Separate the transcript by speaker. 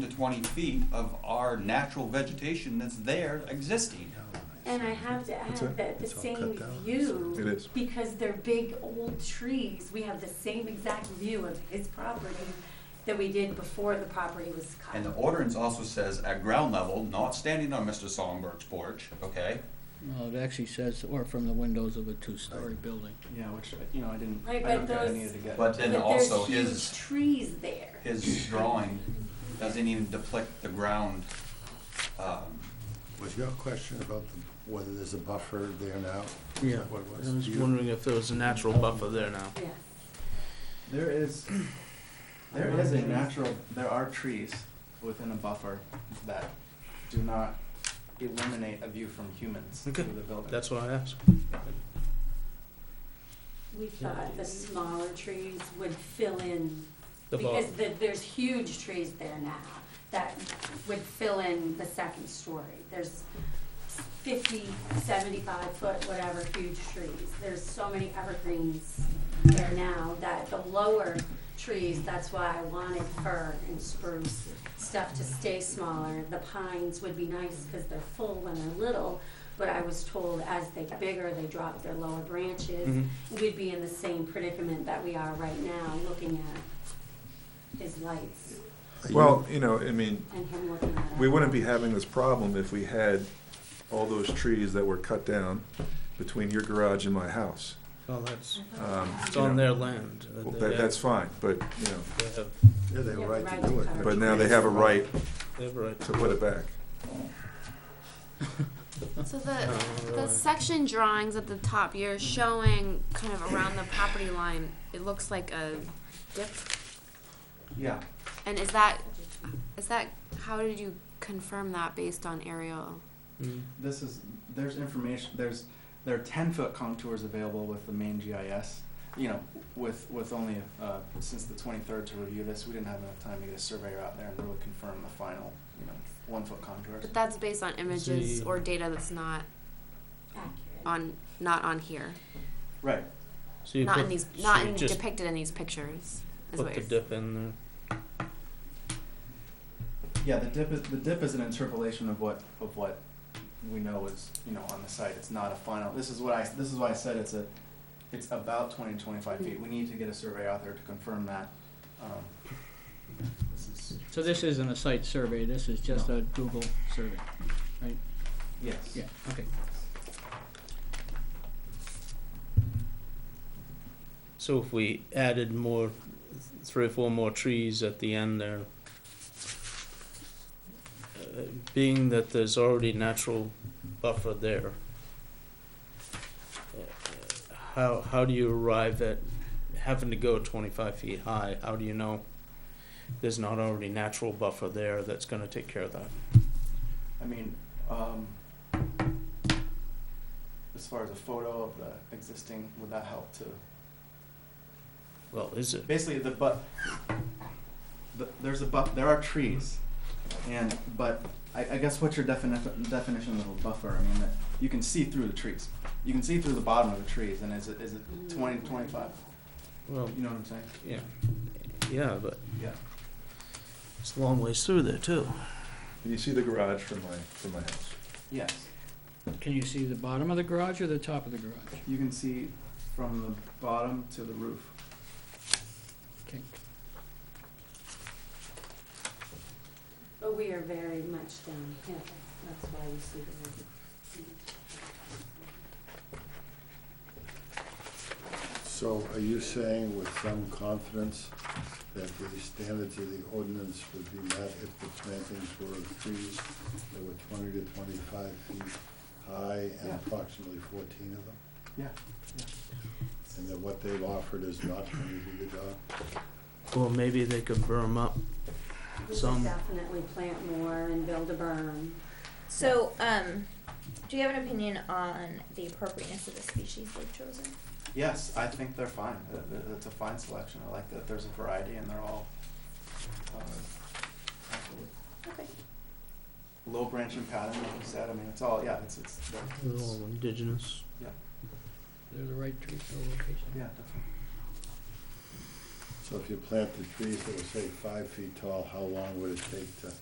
Speaker 1: to twenty feet of our natural vegetation that's there existing.
Speaker 2: And I have to add
Speaker 3: That's it.
Speaker 2: that the
Speaker 3: It's all
Speaker 2: same
Speaker 3: cut down. It
Speaker 2: view,
Speaker 3: is.
Speaker 2: because they're big old trees, we have the same exact view of his property that we did before the property was cut.
Speaker 1: And the ordinance also says at ground level, not standing on Mr. Sonberg's porch, okay?
Speaker 4: Well, it actually says, or from the windows of a two-story building.
Speaker 5: Yeah, which, uh, you know, I didn't,
Speaker 2: Right,
Speaker 5: I don't
Speaker 2: but
Speaker 5: think I
Speaker 2: those-
Speaker 5: needed to get.
Speaker 1: But then
Speaker 2: But
Speaker 1: also
Speaker 2: there's
Speaker 1: his
Speaker 2: huge trees there.
Speaker 1: his drawing doesn't even depict the ground. um,
Speaker 3: Was your question about the- whether there's a buffer there now? Is
Speaker 6: Yeah,
Speaker 3: that what it was?
Speaker 6: I was
Speaker 3: You-
Speaker 6: wondering if there was a natural buffer there now.
Speaker 2: Yes.
Speaker 5: There is, there is a natural, there are trees within a buffer that do not eliminate a view from humans through
Speaker 6: Okay.
Speaker 5: the building.
Speaker 6: That's what I asked.
Speaker 2: We thought the smaller trees would fill in,
Speaker 6: The
Speaker 2: because
Speaker 6: bulb.
Speaker 2: the, there's huge trees there now that would fill in the second story. There's fifty, seventy-five foot, whatever, huge trees. There's so many evergreens there now that the lower trees, that's why I wanted fir and spruce stuff to stay smaller. The pines would be nice because they're full when they're little, but I was told as they get bigger, they drop their lower branches
Speaker 6: Mhm.
Speaker 7: Mm-hmm.
Speaker 2: we'd be in the same predicament that we are right now, looking at his lights
Speaker 3: Are you-
Speaker 7: Well, you know, I mean,
Speaker 2: and him looking at us.
Speaker 7: we wouldn't be having this problem if we had all those trees that were cut down between your garage and my house.
Speaker 6: Well, that's,
Speaker 7: Um,
Speaker 6: it's
Speaker 7: you
Speaker 6: on
Speaker 7: know,
Speaker 6: their land. that
Speaker 7: well,
Speaker 6: they
Speaker 7: That,
Speaker 6: have-
Speaker 7: that's fine, but, you know,
Speaker 6: They have,
Speaker 3: Yeah, they have a
Speaker 2: Yeah,
Speaker 3: right
Speaker 2: right
Speaker 3: to do
Speaker 2: to
Speaker 3: it.
Speaker 2: cover.
Speaker 7: but now they have a right
Speaker 6: they have a right
Speaker 7: to
Speaker 6: to.
Speaker 7: put it back.
Speaker 8: So the
Speaker 6: Uh,
Speaker 8: the section drawings at the top, you're showing kind of around the property line. It looks like a dip.
Speaker 5: Yeah,
Speaker 8: And is that is that how did you confirm that based on aerial?
Speaker 6: mm.
Speaker 5: this is, there's information, there's, there are ten foot contours available with the main GIS. You know, with, with only, uh, since the twenty-third to review this, we didn't have enough time to get a surveyor out there and really confirm the final, you know, one foot contours.
Speaker 8: But that's based on images
Speaker 6: See.
Speaker 8: or data that's not
Speaker 2: Accurate.
Speaker 8: on not on here,
Speaker 5: Right,
Speaker 6: So you
Speaker 8: not
Speaker 6: put,
Speaker 8: in these,
Speaker 6: so
Speaker 8: not
Speaker 6: you
Speaker 8: in,
Speaker 6: just
Speaker 8: depicted in these pictures. Is
Speaker 6: put
Speaker 8: what
Speaker 6: the
Speaker 8: you're
Speaker 6: dip in there.
Speaker 5: Yeah, the dip is, the dip is an interpolation of what, of what we know is, you know, on the site, it's not a final, this is what I, this is why I said it's a, it's about twenty to twenty-five feet, we need to get a survey out there to confirm that, um, this is,
Speaker 4: So this isn't a site survey, this is just
Speaker 5: No.
Speaker 4: a Google survey, right?
Speaker 5: yes.
Speaker 4: Yeah, okay.
Speaker 6: So if we added more, three or four more trees at the end there, uh, being that there's already natural buffer there, uh, how, how do you arrive at having to go twenty-five feet high? How do you know there's not already natural buffer there that's gonna take care of that?
Speaker 5: I mean, um, as far as a photo of the existing, would that help too?
Speaker 6: Well, is it?
Speaker 5: basically the but the, there's a but there are trees and but I, I guess what's your definition definition of a buffer i mean that you can see through the trees you can see through the bottom of the trees and is it is it 20 25
Speaker 6: Well,
Speaker 5: you know what i'm saying
Speaker 6: yeah, yeah, but
Speaker 5: yeah
Speaker 6: it's a long ways through there too.
Speaker 7: Can you see the garage from my, from my house?
Speaker 5: yes
Speaker 4: Can you see the bottom of the garage or the top of the garage?
Speaker 5: you can see from the bottom to the roof
Speaker 4: Okay.
Speaker 2: But we are very much downhill, that's why you see the.
Speaker 3: So are you saying with some confidence that the standards of the ordinance would be met if the plantings were of trees that were twenty to twenty-five feet high and
Speaker 5: Yeah.
Speaker 3: approximately fourteen of them?
Speaker 5: yeah
Speaker 3: And that what they've offered is not gonna do the job?
Speaker 6: Or maybe they could berm up
Speaker 2: We
Speaker 6: Some-
Speaker 2: should definitely plant more and build a berm.
Speaker 9: So, um, do you have an opinion on the appropriateness of the species they've chosen?
Speaker 5: yes i think they're fine Uh, th- it's a fine selection i like that there's a variety and they're all uh, absolutely
Speaker 9: Okay.
Speaker 5: low branching pattern, like you said, I mean, it's all, yeah, it's, it's,
Speaker 6: They're all indigenous.
Speaker 4: They're the right trees for location.
Speaker 5: yeah, definitely.
Speaker 3: So if you plant the trees that were, say, five feet tall, how long would it take to